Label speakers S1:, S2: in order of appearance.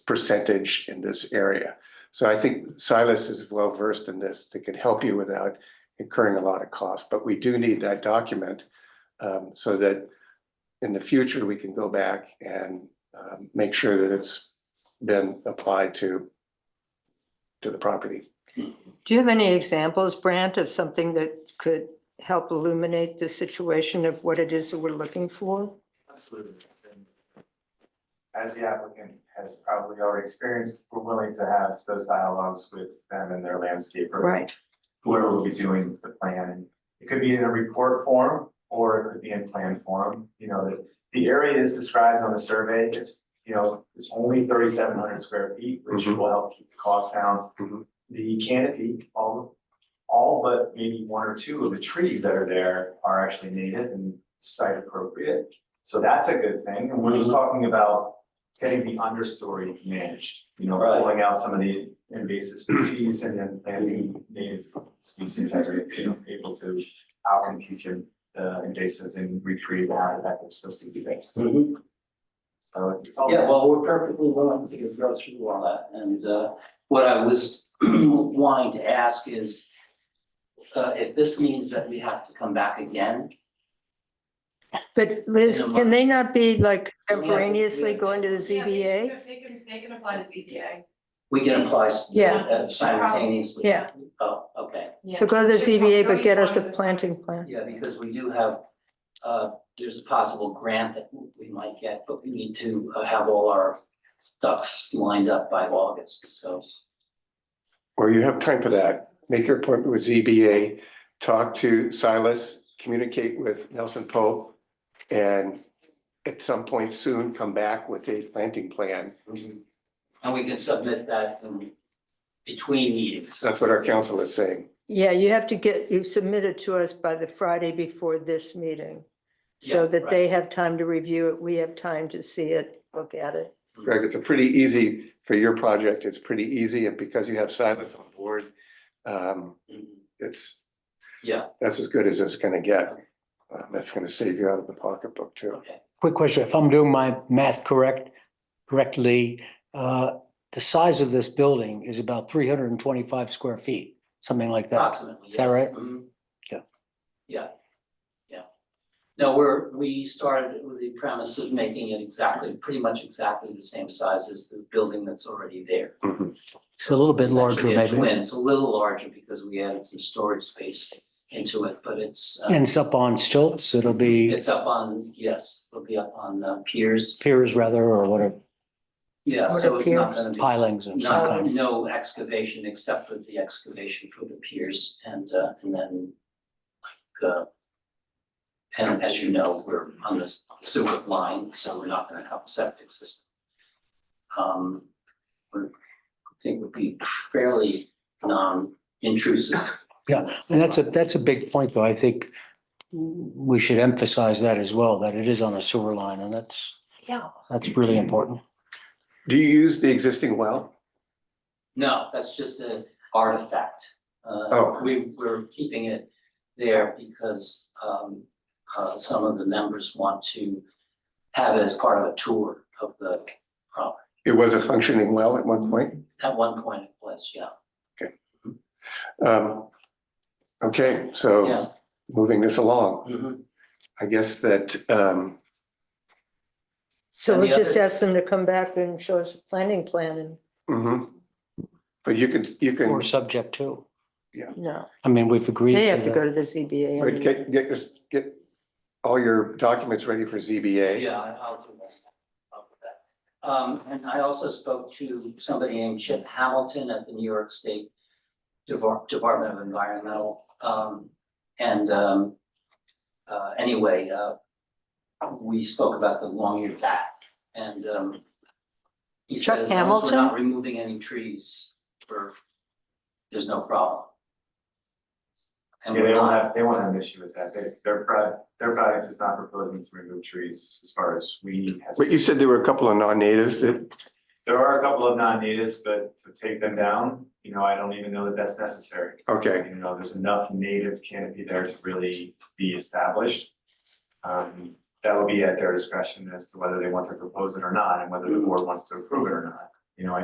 S1: percentage in this area. So I think Silas is well versed in this, that could help you without incurring a lot of cost, but we do need that document. um, so that in the future, we can go back and um, make sure that it's been applied to to the property.
S2: Do you have any examples, Brant, of something that could help illuminate the situation of what it is that we're looking for?
S3: Absolutely. And As the applicant has probably already experienced, we're willing to have those dialogues with them and their landscaper,
S2: Right,
S3: whoever will be doing the plan. And It could be in a report form or it could be in plan form, you know, the, the area is described on the survey, it's, you know, it's only thirty-seven hundred square feet, which
S4: Mm-hmm.
S1: Mhm.
S3: will help keep the cost down.
S1: Mhm.
S3: The canopy, all, all but maybe one or two of the trees that are there are actually native and site appropriate. So that's a good thing, and we're
S4: Mm-hmm.
S3: just talking about getting the understory managed, you know,
S4: Right.
S3: pulling out some of the invasive species and then planting native species that are, you know, able to outcompete your, the invasives and recreate the habitat that's supposed to be there.
S4: Mhm.
S3: So it's it's all.
S4: Yeah, well, we're perfectly willing to go through all that, and uh, what I was wanting to ask is. Uh, if this means that we have to come back again,
S2: but Liz,
S4: In a
S2: can they not be like
S4: Yeah, we-
S2: contemporaneously
S4: yeah.
S2: going to the
S5: Yeah, they can-
S2: ZBA?
S5: They can, they can apply to ZBA.
S4: we can apply s-
S2: Yeah.
S4: uh, simultaneously.
S2: Yeah,
S4: Oh, okay,
S5: Yeah.
S2: so go to the
S5: Should pro-
S2: ZBA, but
S5: probably
S2: get us a
S5: one at time.
S2: planting plan.
S4: yeah, because we do have, uh, there's a possible grant that we might get, but we need to uh, have all our ducks lined up by August, so.
S1: Or you have time for that. Make your appointment with ZBA, talk to Silas, communicate with Nelson Pope. And at some point soon, come back with a planting plan.
S4: And we can submit that in between meetings.
S1: That's what our council is saying.
S2: Yeah, you have to get, you submit it to us by the Friday before this meeting. So
S4: Yeah,
S2: that
S4: right.
S2: they have time to review it, we have time to see it, look at it.
S1: Greg, it's a pretty easy, for your project, it's pretty easy, and because you have Silas on board, um,
S4: Mhm.
S1: it's.
S4: Yeah.
S1: That's as good as it's gonna get. Um, That's gonna save you out of the pocketbook too.
S4: Okay,
S6: Quick question, if I'm doing my math correct, correctly, uh, the size of this building is about three hundred and twenty-five square feet, something like that.
S4: approximately,
S6: Is that
S4: yes.
S6: right?
S4: Mhm.
S6: Yeah.
S4: Yeah, yeah. No, we're, we started with the premise of making it exactly, pretty much exactly the same size as the building that's already there.
S6: It's a little bit larger
S4: Essentially a twin.
S6: maybe.
S4: It's a little larger because we added some storage space into it, but it's, uh,
S6: And it's up on stilts, it'll be
S4: it's up on, yes, it'll be up on uh, piers.
S6: piers rather, or whatever,
S4: Yeah,
S2: What
S4: so it's not
S2: appears-
S4: gonna be.
S6: pilings of some
S4: Not,
S6: kind.
S4: no excavation except for the excavation for the piers and, uh, and then, like, uh, and as you know, we're on this sewer line, so we're not gonna have a septic system. Um, we're, I think would be fairly non-intrusive.
S6: And that's a, that's a big point, though. I think we should emphasize that as well, that it is on a sewer line, and that's,
S4: Yeah.
S6: that's really important.
S1: Do you use the existing well?
S4: No, that's just an artifact. Uh,
S1: Oh.
S4: We, we're keeping it there because, um, uh, some of the members want to have it as part of a tour of the property.
S1: It was a functioning well at one point.
S4: At one point it was, yeah,
S1: Um, okay, so
S4: yeah.
S1: moving this along,
S4: mhm.
S1: I guess that, um,
S2: So
S4: And
S2: we
S4: the
S2: just
S4: other-
S2: ask them to come back and show us a planting plan and,
S1: mhm. But you can, you can,
S6: Or subject to.
S2: no,
S6: I mean, we've agreed.
S2: they have to
S6: that.
S2: go to the ZBA.
S1: but
S2: anyway.
S1: get, get, this- get all your documents ready for ZBA.
S4: Yeah, I- I'll do that. I'll do that. Um, and I also spoke to somebody named Chip Hamilton at the New York State Devor- Department of Environmental. Um, and, um, uh, anyway, uh, we spoke about the long eared bat and, um, he
S2: Chuck
S4: said, as long as we're
S2: Hamilton?
S4: not removing any trees, we're, there's no problem. And
S3: Yeah, they
S4: we're
S3: won't
S4: not,
S3: have, they won't have an issue with that, they, their product, their product is not proposing to remove trees as far as we have.
S1: But you
S3: seen.
S1: said there were a couple of non-natives that,
S3: There are a couple of non-natives, but to take them down, you know, I don't even know that that's necessary.
S1: okay,
S3: You know, there's enough native canopy there to really be established. Um, that will be at their discretion as to whether they want to propose it or not, and whether the board wants to approve it or not. You know, I